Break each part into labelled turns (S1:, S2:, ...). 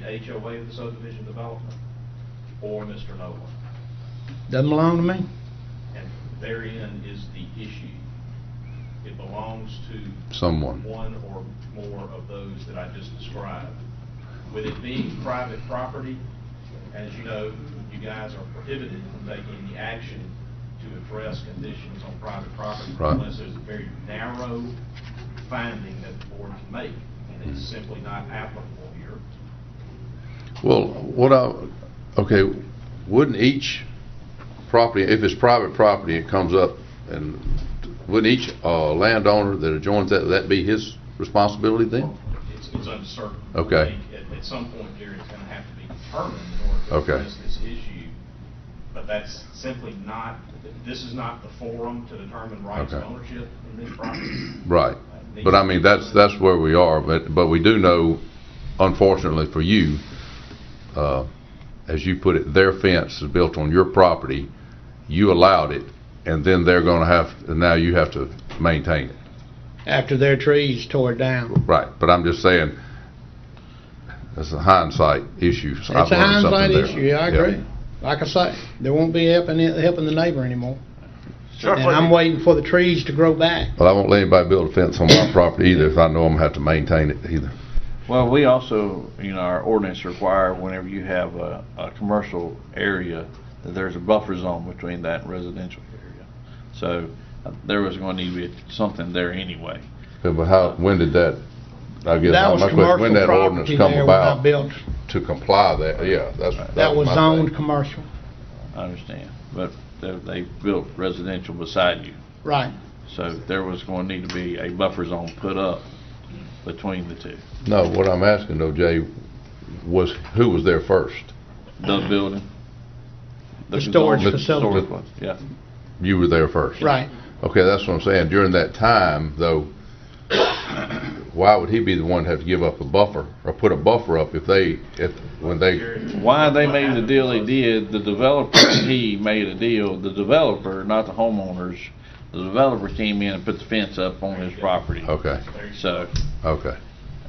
S1: the HOA of the subdivision development or Mr. Nolan.
S2: Doesn't belong to me.
S1: And therein is the issue. It belongs to
S3: someone.
S1: one or more of those that I just described. With it being private property, as you know, you guys are prohibited from taking any action to address conditions on private property
S3: Right.
S1: unless there's a very narrow finding that the board can make, and it's simply not applicable here.
S3: Well, what I, okay, wouldn't each property, if it's private property, it comes up, and wouldn't each uh, landowner that adjoins that, that be his responsibility then?
S1: It's, it's uncertain.
S3: Okay.
S1: I think At, at some point, Gary, it's gonna have to be determined in order to
S3: Okay.
S1: address this issue. But that's simply not, this is not the forum to determine rights of
S3: Okay.
S1: ownership in this property.
S3: Right. But I mean, that's, that's where we are, but, but we do know, unfortunately for you, uh, as you put it, their fence is built on your property, you allowed it, and then they're gonna have, and now you have to maintain it.
S2: After their trees tore down.
S3: Right, but I'm just saying, that's a hindsight issue. so I've
S2: It's a
S3: learned something
S2: hindsight
S3: there.
S2: issue, yeah, I agree. Like I say, they won't be helping, helping the neighbor anymore. And I'm waiting for the trees to grow back.
S3: Well, I won't let anybody build a fence on my property either, if I know I'm gonna have to maintain it either.
S4: Well, we also, you know, our ordinance require whenever you have a, a commercial area, that there's a buffer zone between that and residential area. So uh, there was going to need to be something there anyway.
S3: Yeah, But how, when did that, I guess,
S2: That
S3: how
S2: was
S3: much, was- when
S2: commercial
S3: that ordinance
S2: property
S3: come
S2: there when I
S3: about
S2: built.
S3: to comply that, yeah, that's.
S2: That was
S3: my
S2: zoned
S3: thing.
S2: commercial.
S4: I understand. But they, they built residential beside you.
S2: Right.
S4: So there was going to need to be a buffer zone put up between the two.
S3: No, what I'm asking though, Jay, was who was there first?
S4: The building.
S2: The storage
S4: zone-
S2: facility.
S4: storage place, Yeah.
S3: You were there first.
S2: Right.
S3: Okay, that's what I'm saying. During that time, though, why would he be the one to have to give up a buffer or put a buffer up if they, if, when they,
S1: Gary,
S4: Why they
S1: what
S4: made the
S1: happened
S4: deal they
S1: was-
S4: did, the developer, he made a deal, the developer, not the homeowners, the developer came in and put the fence up on his property.
S3: okay,
S1: There you go.
S4: So,
S3: okay, Okay.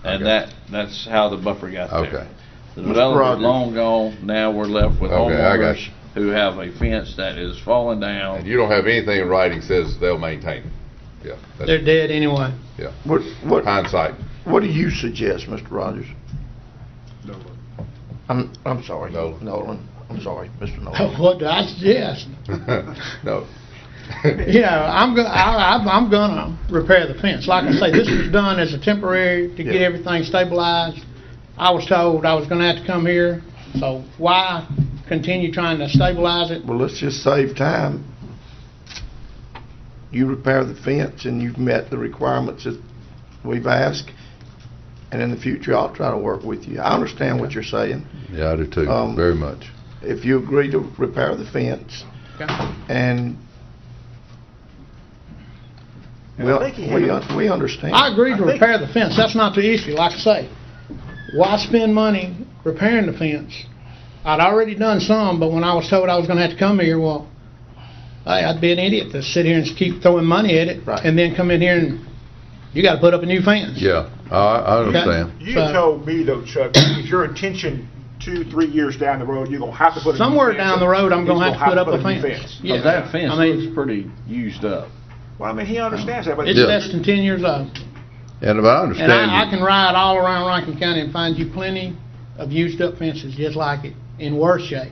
S4: and that, that's how the buffer got there.
S3: okay.
S4: The developer's
S5: Rogers.
S4: long gone, now we're left with
S3: Okay, I got
S4: homeowners
S3: you.
S4: who have a fence that is falling
S3: And
S4: down.
S3: you don't have anything in writing says they'll maintain it. Yeah,
S2: They're
S3: that's
S2: dead anyway.
S5: What, what,
S3: hindsight.
S5: what do you suggest, Mr. Rogers?
S6: No,
S5: I'm, I'm sorry.
S3: Nolan.
S5: Nolan, I'm sorry, Mr. Nolan.
S2: What do I suggest?
S3: No.
S2: You know, I'm go, I, I'm- I'm gonna repair the fence. Like I say, this was done as a temporary to get
S5: Yeah.
S2: everything stabilized. I was told I was gonna have to come here, so why continue trying to stabilize it?
S5: Well, let's just save time. You repair the fence and you've met the requirements that we've asked, and in the future, I'll try to work with you. I understand what you're saying.
S3: Yeah, I do too,
S5: Um,
S3: very much.
S5: If you agree to repair the fence
S2: Okay.
S5: and we,
S7: think he
S5: we,
S7: had-
S5: un- we understand.
S2: I agree to
S7: I think-
S2: repair the fence, that's not the issue, like I say. Why spend money repairing the fence? I'd already done some, but when I was told I was gonna have to come here, well, hey, I'd be an idiot to sit here and keep throwing money at it.
S5: Right.
S2: And then come in here and, you gotta put up a new fence.
S3: Yeah, I, I understand.
S6: You
S2: So-
S6: told me though, Chuck, if your intention two, three years down the road, you're gonna have to put a new fence.
S2: Somewhere down the road, I'm
S6: He's
S2: gonna have to put up a
S6: new
S2: fence. Yeah.
S4: Now, that fence
S2: I mean-
S4: looks pretty used up.
S6: Well, I mean, he understands that, but.
S2: It's
S3: Yeah.
S2: less than ten years old.
S3: And I
S2: And
S3: understand.
S2: I, I
S3: you-
S2: can ride all around Rankin County and find you plenty of used up fences just like it, in worse shape.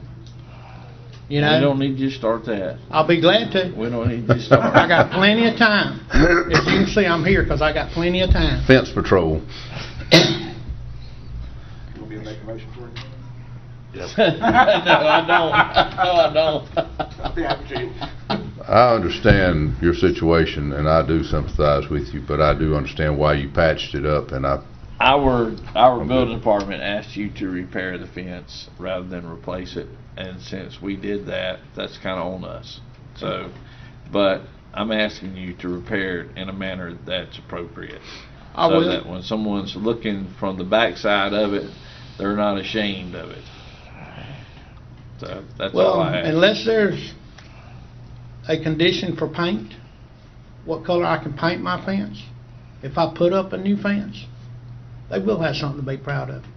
S2: You
S4: We don't
S2: know,
S4: need you to start that.
S2: I'll be glad to.
S4: We don't need you to start.
S2: I got plenty of time. As you can see, I'm here because I got plenty of time.
S3: Fence patrol.
S6: You want me to make a motion for you?
S4: No, I don't. No, I don't.
S3: I understand your situation, and I do sympathize with you, but I do understand why you patched it up, and I,
S4: Our, our building department asked you to repair the fence rather than replace it, and since we did that, that's kinda on us. So, but I'm asking you to repair it in a manner that's appropriate.
S2: I
S4: So
S2: will.
S4: that When someone's looking from the backside of it, they're not ashamed of it. So, that's all
S2: Well,
S4: I ask.
S2: unless there's a condition for paint, what color I can paint my fence, if I put up a new fence, they will have something to be proud of.